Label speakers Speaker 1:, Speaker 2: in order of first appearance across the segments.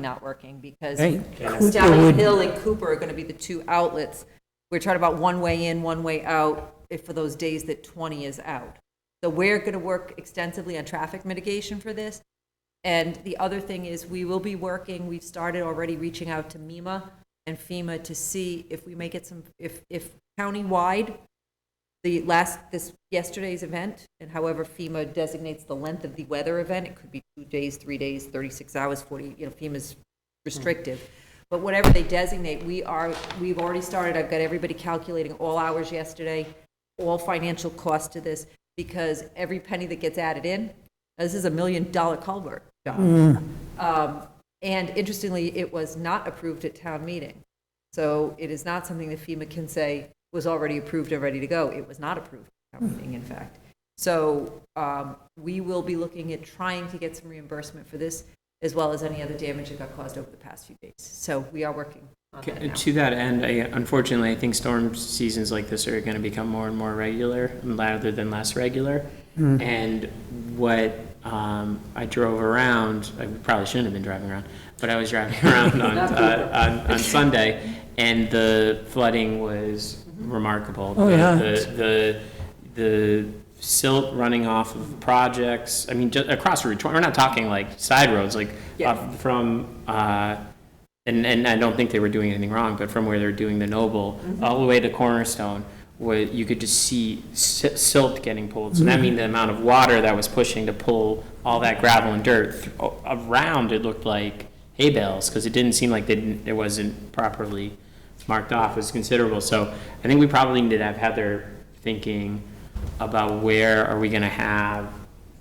Speaker 1: not working because
Speaker 2: Hey,
Speaker 1: Stallion Hill and Cooper are going to be the two outlets. We're talking about one way in, one way out, if for those days that 20 is out. So we're going to work extensively on traffic mitigation for this. And the other thing is, we will be working, we've started already reaching out to MEMA and FEMA to see if we may get some, if, if countywide, the last, this, yesterday's event, and however FEMA designates the length of the weather event, it could be two days, three days, 36 hours, 40, you know, FEMA's restrictive. But whatever they designate, we are, we've already started, I've got everybody calculating all hours yesterday, all financial cost to this, because every penny that gets added in, this is a million-dollar culvert job. Um, And interestingly, it was not approved at town meeting. So it is not something that FEMA can say was already approved and ready to go. It was not approved at town meeting, in fact. So um, we will be looking at trying to get some reimbursement for this, as well as any other damage that got caused over the past few days. So we are working on that now.
Speaker 3: To that end, I, unfortunately, I think storm seasons like this are going to become more and more regular rather than less regular.
Speaker 2: Hmm.
Speaker 3: And what um, I drove around, I probably shouldn't have been driving around, but I was driving around on, uh, on, on Sunday, and the flooding was remarkable.
Speaker 2: Oh,
Speaker 3: The-
Speaker 2: yeah.
Speaker 3: The, the, the silt running off of projects, I mean, just across Route 20, we're not talking like side roads, like
Speaker 1: Yeah.
Speaker 3: up from, uh, and, and I don't think they were doing anything wrong, but from where they're doing the Noble, all the way to Cornerstone, where you could just see si- silt getting pulled. So that means the amount of water that was pushing to pull all that gravel and dirt th- a- around, it looked like hay bales, because it didn't seem like they didn't, it wasn't properly marked off, was considerable. So I think we probably need to have Heather thinking about where are we gonna have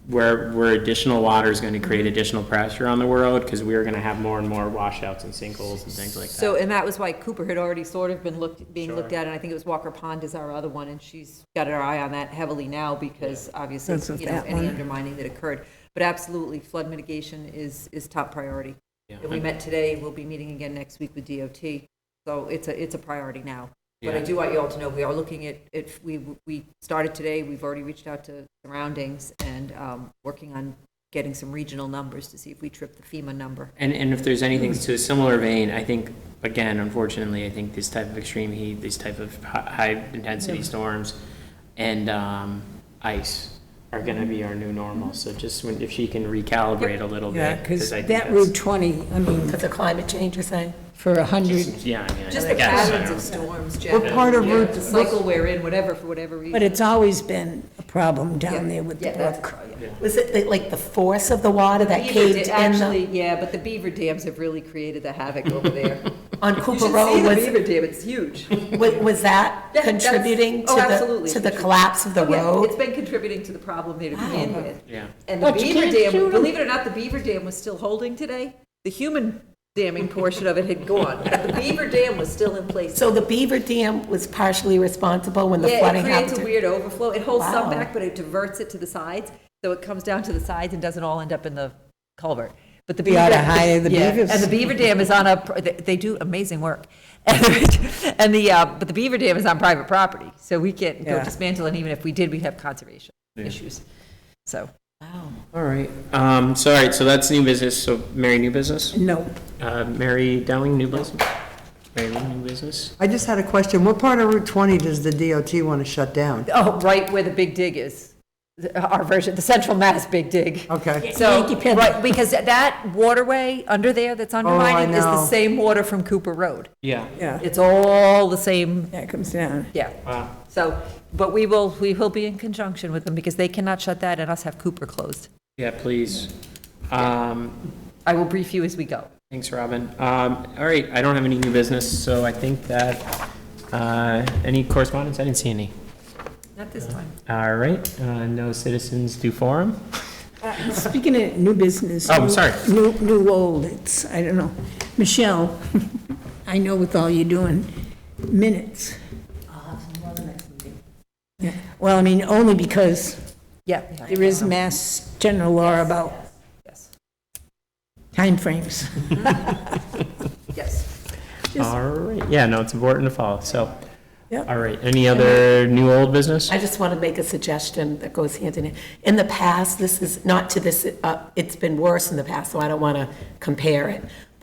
Speaker 3: where, where additional water is going to create additional pressure on the world, because we are going to have more and more washouts and sinkholes and things like
Speaker 1: So,
Speaker 3: that.
Speaker 1: and that was why Cooper had already sort of been looked, being looked
Speaker 3: Sure.
Speaker 1: at, and I think it was Walker Pond is our other one, and she's got her eye on that heavily now because
Speaker 2: That's
Speaker 1: obviously,
Speaker 2: what
Speaker 1: you know,
Speaker 2: that
Speaker 1: any
Speaker 2: one-
Speaker 1: undermining that occurred. But absolutely, flood mitigation is, is top priority.
Speaker 3: Yeah.
Speaker 1: And we met today, we'll be meeting again next week with DOT, so it's a, it's a priority now. But I
Speaker 3: Yeah.
Speaker 1: do want you all to know, we are looking at, at, we, we started today, we've already reached out to surroundings and um, working on getting some regional numbers to see if we trip the FEMA number.
Speaker 3: And, and if there's anything to a similar vein, I think, again, unfortunately, I think this type of extreme heat, these type of high-intensity storms and um, ice are going to be our new normal. So just when, if she can recalibrate a little
Speaker 2: Yeah,
Speaker 3: bit.
Speaker 2: because
Speaker 3: I think
Speaker 2: that
Speaker 3: that's-
Speaker 2: Route 20, I mean,
Speaker 4: Because of climate change, you're saying?
Speaker 2: for a 100,
Speaker 3: Yeah, I mean, I
Speaker 1: Just the
Speaker 3: guess, I
Speaker 1: patterns
Speaker 3: don't
Speaker 1: of
Speaker 3: know.
Speaker 1: storms, Jeff.
Speaker 2: We're part of
Speaker 1: Yeah,
Speaker 2: Route-
Speaker 1: The cycle we're in, whatever, for whatever reason.
Speaker 2: but it's always been a problem down there with the
Speaker 1: Yeah, that's-
Speaker 2: brook.
Speaker 4: Was it the- like the force of the water that
Speaker 1: Beaver
Speaker 4: caved
Speaker 1: da-
Speaker 4: in the-
Speaker 1: Actually, yeah, but the beaver dams have really created the havoc over there.
Speaker 4: on
Speaker 1: You
Speaker 4: Cooper
Speaker 1: should see
Speaker 4: Road?
Speaker 1: the
Speaker 4: Was,
Speaker 1: beaver dam, it's huge.
Speaker 4: wa- was that
Speaker 1: Yeah, that's-
Speaker 4: contributing to
Speaker 1: oh,
Speaker 4: the,
Speaker 1: absolutely.
Speaker 4: to the collapse of the
Speaker 1: Yeah, It's
Speaker 4: road?
Speaker 1: been contributing to the problem there to begin with.
Speaker 3: Yeah.
Speaker 1: And the
Speaker 2: But you
Speaker 1: beaver
Speaker 2: can't
Speaker 1: dam,
Speaker 2: shoot 'em.
Speaker 1: believe it or not, the beaver dam was still holding today. The human damming portion of it had gone, but the beaver dam was still in place.
Speaker 4: So the Beaver Dam was partially responsible when the
Speaker 1: Yeah, it
Speaker 4: flooding
Speaker 1: creates a
Speaker 4: happened?
Speaker 1: weird overflow. It holds some
Speaker 4: Wow.
Speaker 1: back, but it diverts it to the sides, so it comes down to the sides and doesn't all end up in the culvert. But the beaver.
Speaker 2: oughta hire the
Speaker 1: Yeah,
Speaker 2: beavers.
Speaker 1: And the beaver dam is on a, pr- they they do amazing work. And the, uh, but the beaver dam is on private property, so we can't go
Speaker 2: Yeah.
Speaker 1: dismantle, and even if we did, we'd have conservation issues. So,
Speaker 3: All right. Um, So, all right, so that's new business. So Mary, new business?
Speaker 2: No,
Speaker 3: Uh, Mary Dowling, new business? Mary Lou, new business?
Speaker 5: I just had a question. What part of Route 20 does the DOT want to shut down?
Speaker 1: oh, right where the big dig is, the- our version, the central mass big dig.
Speaker 5: Okay.
Speaker 1: So,
Speaker 2: Yankee Peddler.
Speaker 1: right, because that waterway under there that's undermined is the
Speaker 5: know.
Speaker 1: same water from Cooper Road.
Speaker 3: Yeah.
Speaker 2: yeah,
Speaker 1: It's all the same,
Speaker 2: that comes down.
Speaker 1: yeah.
Speaker 3: Wow.
Speaker 1: So, but we will, we will be in conjunction with them because they cannot shut that and us have Cooper closed.
Speaker 3: Yeah, please. Um,
Speaker 1: I will brief you as we go.
Speaker 3: Thanks, Robin. Um, All right, I don't have any new business, so I think that, uh, any correspondence? I didn't see any.
Speaker 1: Not this time.
Speaker 3: All right, uh, no citizens do forum?
Speaker 2: Speaking of new business.
Speaker 3: Oh, I'm
Speaker 2: new-
Speaker 3: sorry.
Speaker 2: New, new old, it's, I don't know. Michelle, I know with all you're doing, minutes. Yeah, Well, I mean, only because
Speaker 1: Yeah.
Speaker 2: there is mass general law about
Speaker 1: Yes,
Speaker 2: timeframes.
Speaker 1: yes.
Speaker 3: All right, yeah, no, it's important to follow, so.
Speaker 2: Yep.
Speaker 3: All right, any other new old business?
Speaker 4: I just want to make a suggestion that goes hand in hand. In the past, this is, not to this, uh, it's been worse in the past, so I don't want to compare it.